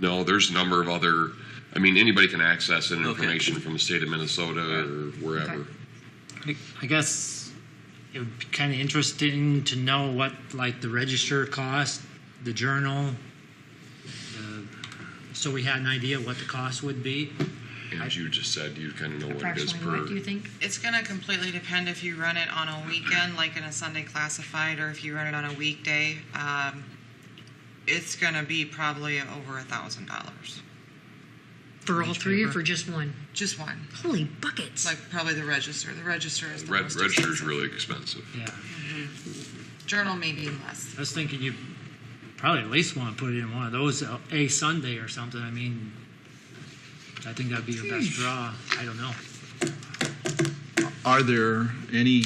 No, there's a number of other, I mean, anybody can access that Okay. information from the state of Minnesota or wherever. Okay. I- I guess it would be kind of interesting to know what, like, the register cost, the journal, the- so we had an idea what the cost would be. And you just said you kind of know what it is Approximately, per. what do you think? It's going to completely depend if you run it on a weekend, like in a Sunday classified, or if you run it on a weekday. Um, it's going to be probably over a thousand dollars. For all Each three or paper? for just one? Just one, Holy buckets. like probably the register. The register is the Red, most register's expensive. really expensive. Yeah, Journal maybe less. I was thinking you probably at least want to put it in one of those, uh, a Sunday or something. I mean, I think that'd be your best draw. I don't know. Are there any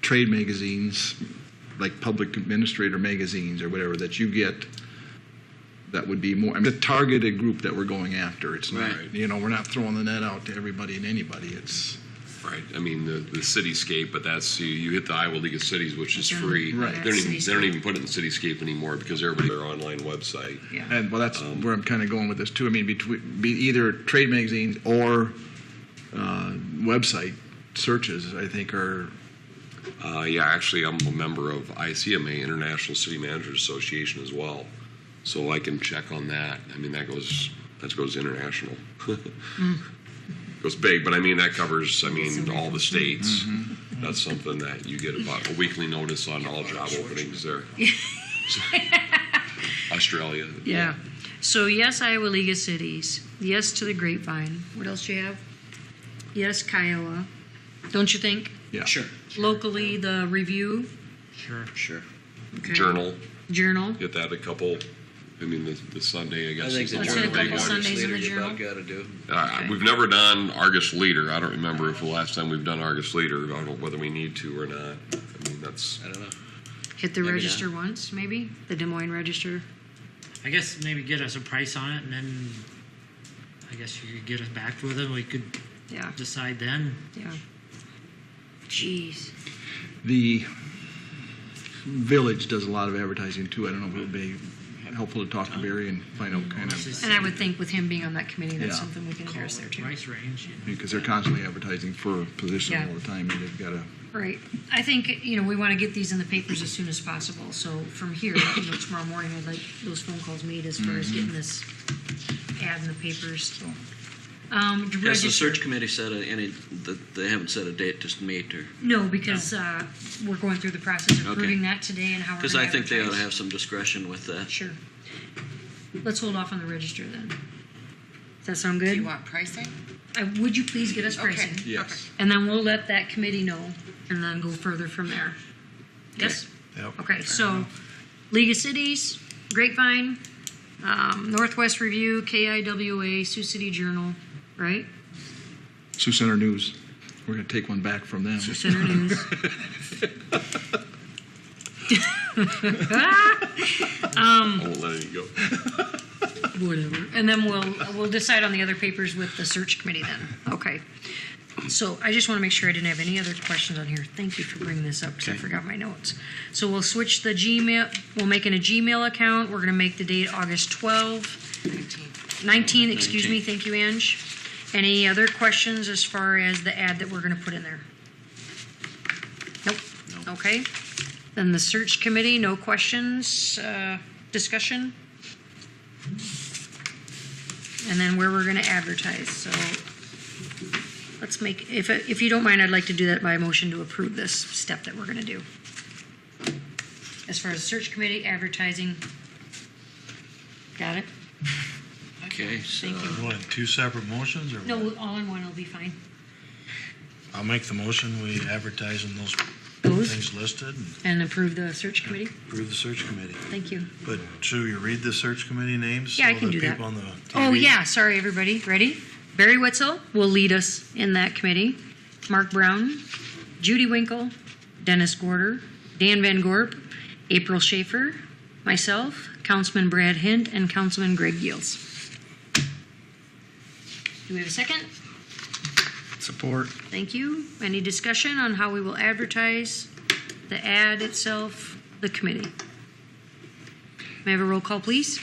trade magazines, like public administrator magazines or whatever, that you get that would be more, I mean, the targeted group that we're going after? It's Right. not, you know, we're not throwing the net out to everybody and anybody. It's, Right. I mean, the, the cityscape, but that's, you, you hit the Iowa League of Cities, which is Mhm. free. Right. They don't even, they don't even put it in cityscape anymore because everybody, their online website. Yeah. and well, that's where I'm kind of going with this too. I mean, between, be either trade magazines or uh, website searches, I think are, Uh, yeah, actually, I'm a member of ICMA, International City Managers Association, as well. So I can check on that. I mean, that goes that goes international. Goes big, but I mean that covers. I mean all the states. Mm-hmm. That's something that you get about a weekly notice on all job openings there. Australia. Yeah. So yes, Iowa League of Cities. Yes to the grapevine. What else do you have? Yes, Kiowa. Don't you think? yeah. Sure. Locally, the review. Sure. Sure. Okay. Journal. Journal. Get that a couple. I mean the, the Sunday. I guess. I think is the Let's journal hit a couple you want Sundays in leader the you journal. about got to do. Uh, We've never done Argus Leader. I don't remember if the last time we've done Argus Leader. I don't know whether we need to or not. I mean, that's I don't know. Hit the Maybe register once, maybe the Des Moines Register. I guess maybe get us a price on it, and then I guess you could get us back with it. We could Yeah. decide then. Yeah. Jeez. The village does a lot of advertising too. I don't know if it would be helpful to talk to Barry and find out kind of, And I would think with him being on that committee, that's Yeah. something we can call address there it too. price range. you know. because they're constantly advertising for positions Yeah. all the time and they've got to, Right. I think, you know, we want to get these in the papers as soon as possible. So from here, you know, tomorrow morning, I'd like those phone calls made as far Mm-hmm. as getting this ad in the papers. so. Has Um, to the register- search committee set a, any? The, they haven't set a date to meet or No, because uh, we're going through the process of Okay. approving that today and how we're because gonna I think they ought to advertise. have some discretion with that. Sure. Let's hold off on the register then. Does that sound Do you good? want pricing? Uh, Would you please get us pricing? Okay. Yes. And then we'll let that committee know and then go further from there. Yes? Yep. Okay, so League of Cities, Grapevine, um, Northwest Review, KIWA, Sioux City Journal, right? Sioux Center News. We're going to take one back from them. Center News. I won't let it go. Whatever. And then we'll, we'll decide on the other papers with the search committee then. Okay. So I just want to make sure I didn't have any other questions on here. Thank you for bringing this up because I forgot my notes. So we'll switch the Gmail, we'll make it a Gmail account. We're going to make the date August 12, 19, excuse me. Thank you, Ange. Any other questions as far as the ad that we're going to put in there? Nope. Okay. Then the search committee, no questions, uh, discussion? and then where we're going to advertise. So let's make, if, if you don't mind, I'd like to do that by motion to approve this step that we're going to do. As far as search committee, advertising. Got it? Okay. So Thank you. What, two separate motions, or? what? No, all in one will be fine. I'll make the motion, we advertise in those Those, things listed and and approve the search committee. approve the search committee. Thank you. But should you read the search committee names? Yeah, I so can that do that. people on the Oh, TV yeah, sorry, everybody. Ready? Barry Witzel will lead us in that committee. Mark Brown, Judy Winkle, Dennis Gorder, Dan Van Gorp, April Schaefer, myself, Councilman Brad Hint, and Councilman Greg Yields. Do we have a second? Support. Thank you. Any discussion on how we will advertise the ad itself, the committee? May I have a roll call, please?